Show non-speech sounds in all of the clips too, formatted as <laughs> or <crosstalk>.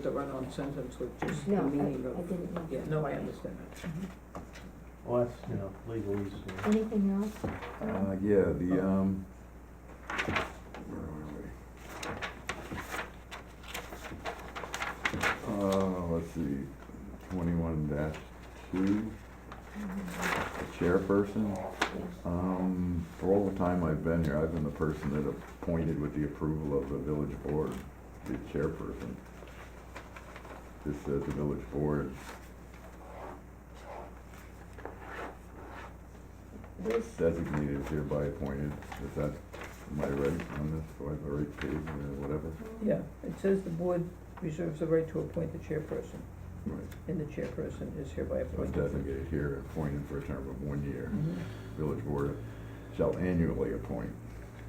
the run-on sentence with just the No, I, I meaning of, didn't know. yeah, no, I understand that. Well, that's, you know, legalese, you know. Anything else? Uh, yeah, the, um, where are we? Uh, let's see, twenty-one dash two, chairperson. Um, for all the time I've been here, I've been the person that appointed with the approval of the village board, the chairperson. This says the village board, This, designated is hereby appointed, is that, am I right on this, do I have the right page or whatever? Yeah, it says the board reserves the right to appoint the chairperson, Right. and the chairperson is hereby So appointed. designated here, appointed for a term of one year. Mhm. Village Board shall annually appoint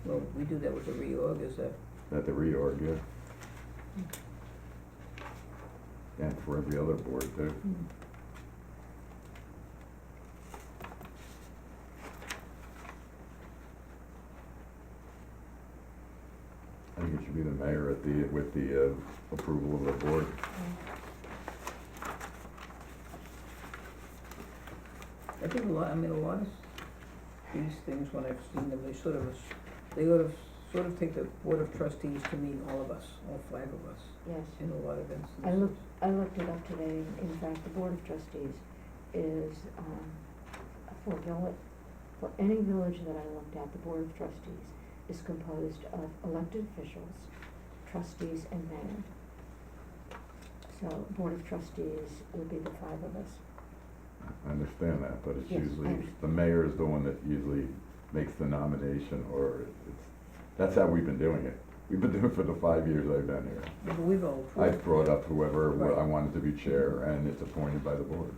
Well, we do that with the uh, reorg, is that, at the reorg, yeah. And for every other board too. mm, I think it should be the mayor at the, with the uh, approval of the board. uh, I think a lot, I mean, a lot of these things, when I've seen them, they sort of, ass- they sort of, sort of take the board of trustees to mean all of us, all five of us, yes. in a lot of instances. I looked, I looked it up today, and in fact, the Board of Trustees is, um, for village, for any village that I looked at, the Board of Trustees is composed of elected officials, trustees, and mayor. So Board of Trustees would be the five of us. I understand that, but it's Yes, I usually, understand. the mayor is the one that usually makes the nomination or it's, that's how we've been doing it. We've been doing it for the five years I've been here. But We've all I've approved, brought up whoever wa- I Right. wanted to be chair, and it's appointed by the board.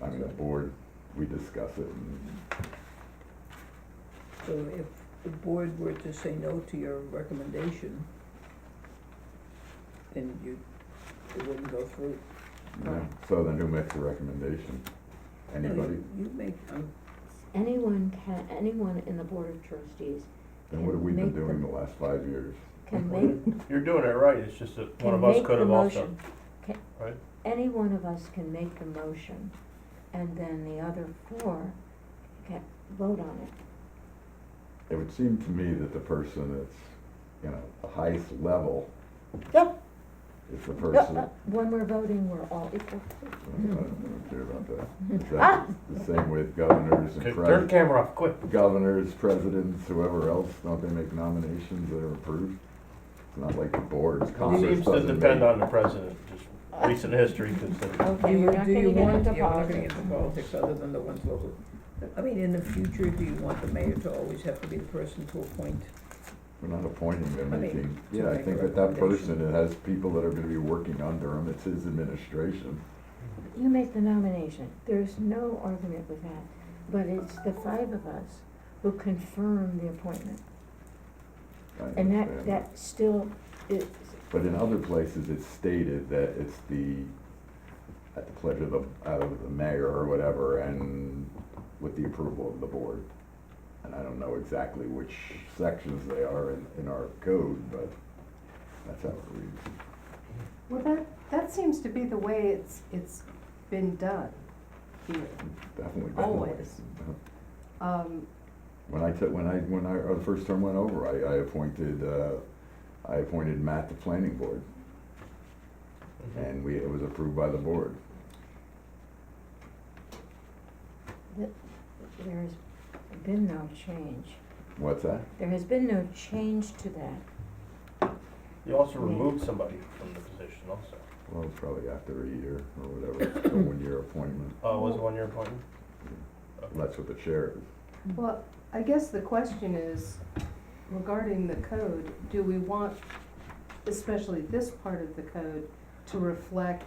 I mean, the Right. board, we discuss it, and so if the board were to say no to your recommendation, then you, it wouldn't go through. you know, Right. so then who makes the recommendation? No, you- Anybody? You make, um, Anyone can, anyone in the Board of Trustees Then what have we been Make the- doing the last five years? can make You're doing it right, it's just that can one of us make could the have also. motion. Can- right? Any one of us can make the motion, and then the other four can vote on it. It would seem to me that the person that's, you know, the highest level Yep. is the person, I When we're uh, voting, we're all equal. don't I don't care about <laughs> that. Is that the same with governors Okay, Turn and the pres- camera off, quick. governors, presidents, whoever else, don't they make nominations that are approved? It's not like the board's Congress Seems to doesn't depend make- on the president, just recent history considered. do Okay, you, we're not do gonna you get want, into yeah, we're not gonna get politics. into politics other than the ones local. I mean, in the future, do you want the mayor to always have to be the person to appoint? We're not appointing, they're I mean, making, to yeah, I make a think that that recommendation. person, that has people that are gonna be working under him, it's his administration. You make the nomination, there's no argument with that, but it's the five of us who confirm the appointment. I And that, understand. that still is, But in other places, it's stated that it's the, at the pleasure of the, of the mayor or whatever, and with the approval of the board. And I don't know exactly which sections they are in, in our code, but that's how it reads. Well, that, that seems to be the way it's, it's been done here. Definitely. been the way. Always. Um, When I took, when I, when I, or the first term went over, I, I appointed, uh, I appointed Matt to planning board, and we, it was approved by the board. there's been no change. What's that? There has been no change to that. You also removed somebody from the position also. Well, it's probably after a year or whatever, a one-year appointment, Uh, was it one year appointment? that's what the chair is. well, I guess the question is regarding the code, do we want, especially this part of the code, to reflect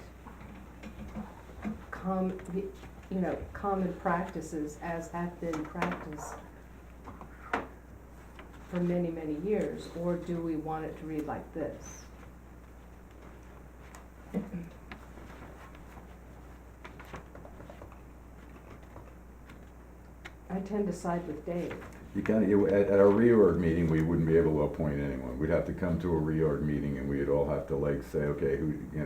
com, you know, common practices as have been practiced for many, many years, or do we want it to read like this? I tend to side with Dave. You kind of, at, at our reorg meeting, we wouldn't be able to appoint anyone. We'd have to come to a reorg meeting and we'd all have to like say, okay, who, you know,